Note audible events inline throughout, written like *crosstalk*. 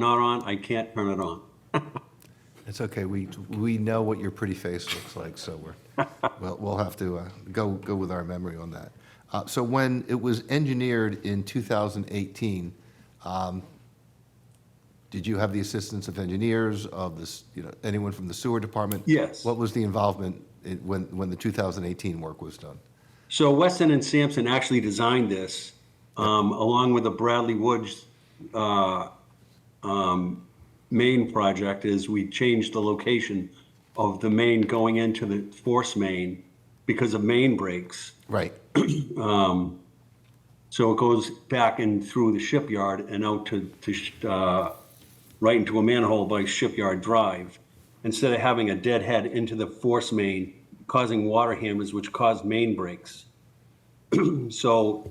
not on, I can't turn it on. It's okay, we, we know what your pretty face looks like, so *laughs* we're, we'll, we'll have to uh, go, go with our memory on that. Uh, So when it was engineered in 2018, um, did you have the assistance of engineers, of this, you know, anyone from the sewer department? Yes. What was the involvement in- when, when the 2018 work was done? So Weston and Sampson actually designed this, um, along with the Bradley Woods, uh, um, main project is we changed the location of the main going into the force main because of main breaks. Right, So it goes back and through the shipyard and out to, to, sh- uh, right into a manhole by Shipyard Drive, instead of having a deadhead into the force main, causing water hammers, which caused main breaks. *clears throat* So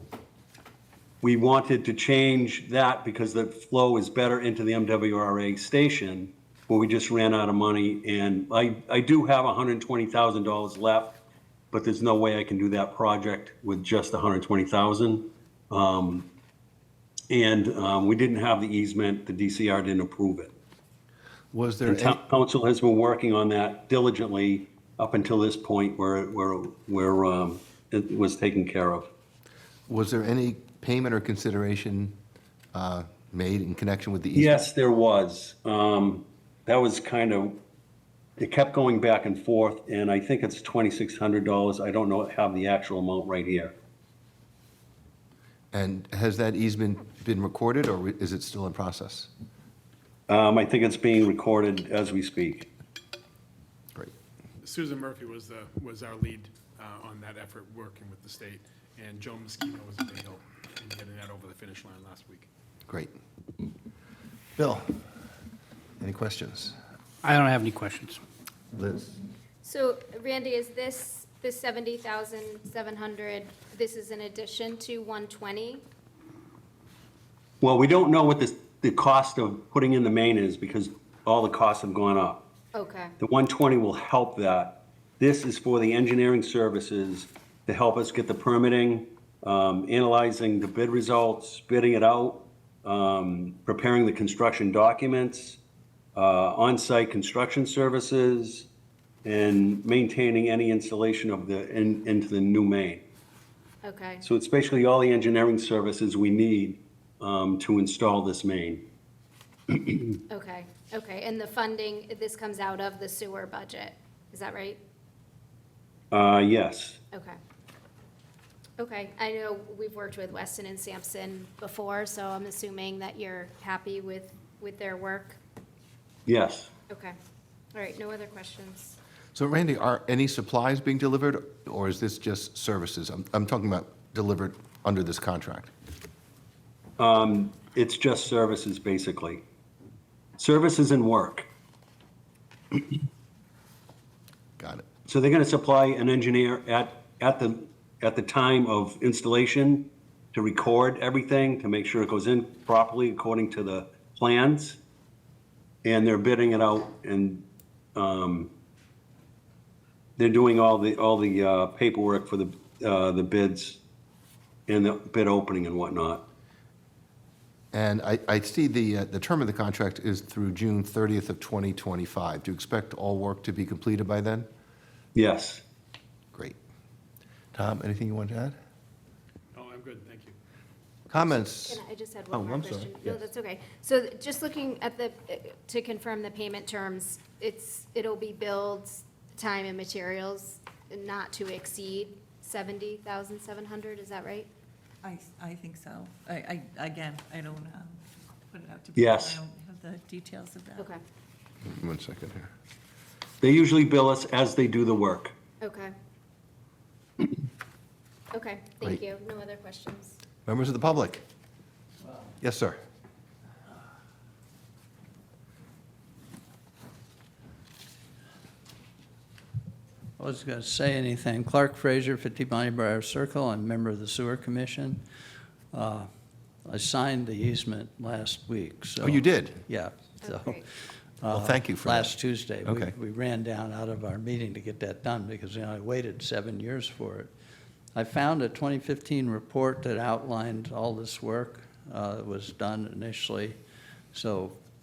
we wanted to change that because the flow is better into the MWRA station, but we just ran out of money, and I, I do have $120,000 left, but there's no way I can do that project with just 120,000. And um, we didn't have the easement, the DCR didn't approve it. was there, And any- town council has been working on that diligently up until this point where, where, where um, it was taken care of. was there any payment or consideration uh, made in connection with the easement? Yes, there was. Um, That was kind of, it kept going back and forth, and I think it's $2,600. I don't know, have the actual amount right here. And has that easement been recorded, or is it still in process? Um, I think it's being recorded as we speak. Great. Susan Murphy was the, was our lead uh, on that effort, working with the state, and Joan Mosquito was a big help in getting that over the finish line last week. Great. Bill, any questions? I don't have any questions. Liz? So Randy, is this, the 70,700, this is in addition to 120? Well, we don't know what the, the cost of putting in the main is because all the costs have gone up. Okay, The 120 will help that. This is for the engineering services to help us get the permitting, um, analyzing the bid results, bidding it out, um, preparing the construction documents, uh, on-site construction services, and maintaining any installation of the, in- into the new main. okay, So it's basically all the engineering services we need um, to install this main. okay, okay. And the funding, this comes out of the sewer budget, is that right? Uh, Yes. Okay. Okay, I know we've worked with Weston and Sampson before, so I'm assuming that you're happy with, with their work? Yes. Okay, all right, no other questions? So Randy, are any supplies being delivered, or is this just services? I'm, I'm talking about delivered under this contract. It's just services, basically. Services and work. Got it. So they're going to supply an engineer at, at the, at the time of installation to record everything, to make sure it goes in properly according to the plans. And they're bidding it out and um, they're doing all the, all the uh, paperwork for the, uh, the bids and the bid opening and whatnot. And I, I see the, uh, the term of the contract is through June 30th of 2025. Do you expect all work to be completed by then? Yes. Great. Tom, anything you want to add? Oh, I'm good, thank you. Comments? Can I just had Oh, one more I'm sorry. question? No, Yes. that's okay. So th- just looking at the, uh, to confirm the payment terms, it's, it'll be billed time and materials not to exceed 70,700, is that right? I, I think so. I, I, again, I don't, um, put it out to. bid. Yes. I don't have the details of that. Okay, One second here. They usually bill us as they do the work. *coughs* okay. Okay, Great. thank you. No other questions? Members of the public? Yes, sir. I wasn't going to say anything. Clark Fraser, 50 Bonnie Briar Circle, I'm a member of the Sewer Commission. Uh, I signed the easement last week, so. Oh, you did? Yeah. Oh, so, great. Well, uh, thank you for that. Last Tuesday. We- Okay. We ran down out of our meeting to get that done because, you know, I waited seven years for it. I found a 2015 report that outlined all this work uh, that was done initially, so